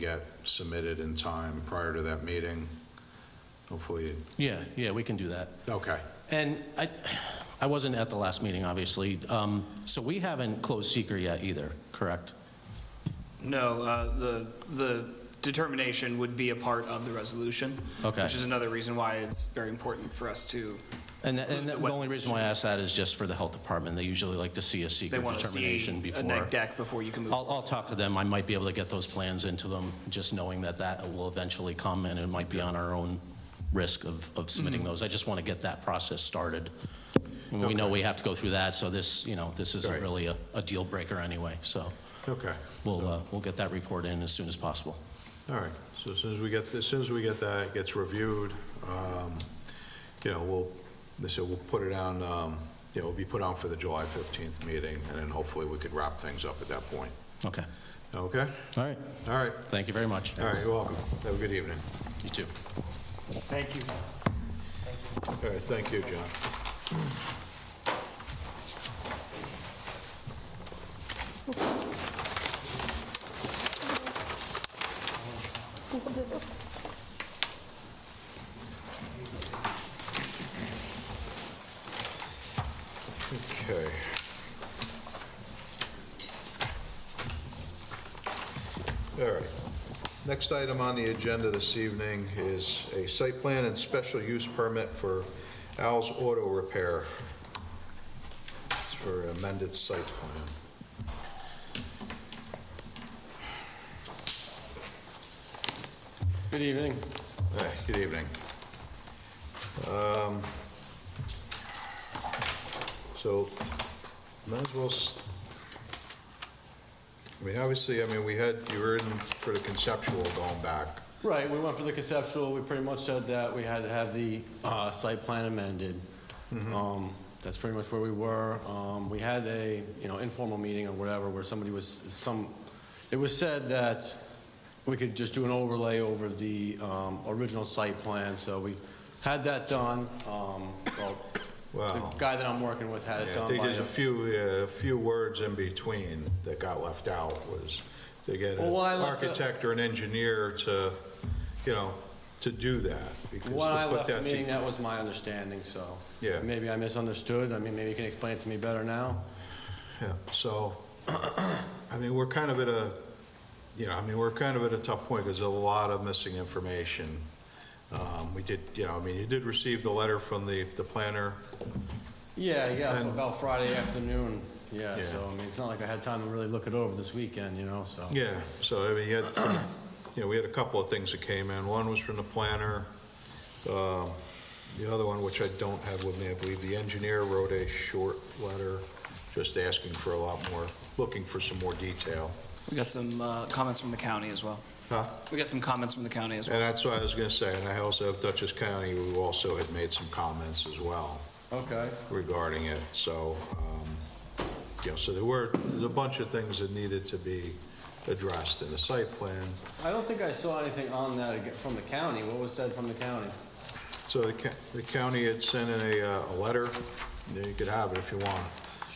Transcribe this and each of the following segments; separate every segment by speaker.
Speaker 1: get submitted in time prior to that meeting. Hopefully,
Speaker 2: Yeah, yeah, we can do that.
Speaker 1: okay,
Speaker 2: And I, I wasn't at the last meeting, obviously. Um, So we haven't closed seeker yet either, correct?
Speaker 3: No, uh, the, the determination would be a part of the resolution.
Speaker 2: Okay.
Speaker 3: Which is another reason why it's very important for us to,
Speaker 2: And that- and that- the only reason why I ask that is just for the health department. They usually like to see a
Speaker 3: they
Speaker 2: seeker
Speaker 3: want to
Speaker 2: determination
Speaker 3: see a
Speaker 2: before.
Speaker 3: neg deck before you can move.
Speaker 2: I'll, I'll
Speaker 3: forward.
Speaker 2: talk to them. I might be able to get those plans into them, just knowing that that will eventually come and it might be on our own risk of, of
Speaker 3: Mm-hmm.
Speaker 2: submitting those. I just want to get that process started. And We know we have to go through that, so this, you know, this isn't
Speaker 1: Right.
Speaker 2: really a, a deal breaker anyway. So
Speaker 1: okay.
Speaker 2: we'll, uh, we'll get that report in as soon as possible.
Speaker 1: All right, so as soon as we get, as soon as we get that, it gets reviewed, um, you know, we'll, they said we'll put it on, um, you know, it'll be put on for the July 15th meeting, and then hopefully we could wrap things up at that point.
Speaker 2: Okay.
Speaker 1: Okay?
Speaker 2: All right.
Speaker 1: All right,
Speaker 2: Thank you very much.
Speaker 1: all right, you're welcome. Have a good evening.
Speaker 2: You too.
Speaker 3: Thank you.
Speaker 1: All right, thank you, John. Okay. All right. Next item on the agenda this evening is a site plan and special use permit for Al's Auto Repair. It's for amended site plan.
Speaker 4: Good evening.
Speaker 1: All right, Good evening. Um, So, might as well, s- I mean, obviously, I mean, we had, you were in for the conceptual going back.
Speaker 4: Right, we went for the conceptual, we pretty much said that we had to have the uh, site plan amended.
Speaker 1: Mm-hmm.
Speaker 4: Um, That's pretty much where we were. Um, We had a, you know, informal meeting or whatever, where somebody was, some, it was said that we could just do an overlay over the um, original site plan, so we had that done. Um, Well,
Speaker 1: Wow.
Speaker 4: The guy that I'm working with had it
Speaker 1: Yeah, I
Speaker 4: done
Speaker 1: think
Speaker 4: by,
Speaker 1: there's a few, uh few words in between that got left out was to get an
Speaker 4: Well, when I left the-
Speaker 1: architect or an engineer to, you know, to do that. because
Speaker 4: when
Speaker 1: to
Speaker 4: I
Speaker 1: put
Speaker 4: left the
Speaker 1: that to-
Speaker 4: meeting, that was my understanding, so.
Speaker 1: Yeah.
Speaker 4: Maybe I misunderstood, I mean, maybe you can explain it to me better now.
Speaker 1: Yeah, so, I mean, we're kind of at a, you know, I mean, we're kind of at a tough point, because there's a lot of missing information. Um, We did, you know, I mean, you did receive the letter from the, the planner,
Speaker 4: Yeah, yeah,
Speaker 1: And-
Speaker 4: about Friday afternoon, yeah,
Speaker 1: Yeah.
Speaker 4: so, I mean, it's not like I had time to really look it over this weekend, you know, so.
Speaker 1: Yeah, so I mean, you had, you know, we had a couple of things that came in. One was from the planner. um, The other one, which I don't have with me, I believe the engineer wrote a short letter just asking for a lot more, looking for some more detail.
Speaker 3: We got some uh, comments from the county as well.
Speaker 1: Huh?
Speaker 3: We got some comments from the county as well.
Speaker 1: And that's what I was gonna say, and I also have Dutchess County, who also had made some comments as well.
Speaker 4: Okay,
Speaker 1: regarding it, so, um, you know, so there were, there's a bunch of things that needed to be addressed in the site plan.
Speaker 4: I don't think I saw anything on that ag- from the county, what was said from the county?
Speaker 1: So the ca- the county had sent in a, uh, a letter, Yeah, you could have it if you want.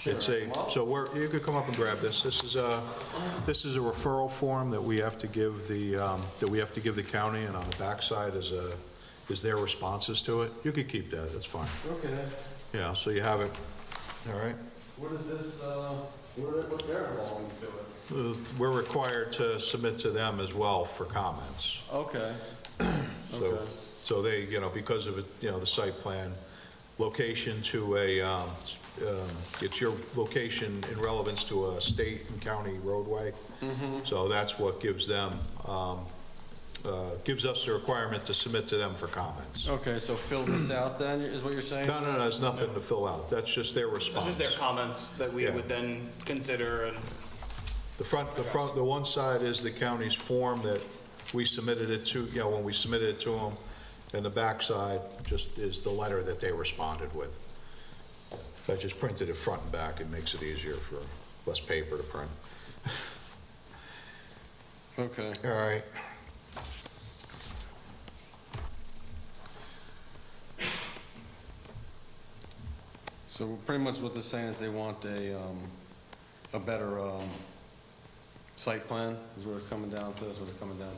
Speaker 1: It's
Speaker 4: Sure.
Speaker 1: a, so we're, you could come up and grab this, this is a, this is a referral form that we have to give the, um, that we have to give the county, and on the backside is a, is their responses to it. You could keep that, that's fine,
Speaker 4: Okay,
Speaker 1: yeah, so you have it, all right?
Speaker 4: what is this, uh, what, what's their involvement to it?
Speaker 1: Uh, We're required to submit to them as well for comments.
Speaker 4: Okay,
Speaker 1: So,
Speaker 4: Okay.
Speaker 1: so they, you know, because of, it, you know, the site plan, location to a, um, um, it's your location in relevance to a state and county roadway. So that's what gives them, um, uh, gives us the requirement to submit to them for comments.
Speaker 4: okay, so fill this out then, is what you're saying?
Speaker 1: No, no, no, there's nothing to fill out. That's just their response.
Speaker 3: It's just their comments that we
Speaker 1: Yeah.
Speaker 3: would then consider and
Speaker 1: The front, the front, the one side is the county's form that we submitted it to, you know, when we submitted it to them, and the back side just is the letter that they responded with. I just printed it front and back, it makes it easier for less paper to print.
Speaker 4: Okay,
Speaker 1: All right.
Speaker 4: so pretty much what they're saying is they want a, um, a better, um, site plan, is what it's coming down to, is what it's coming down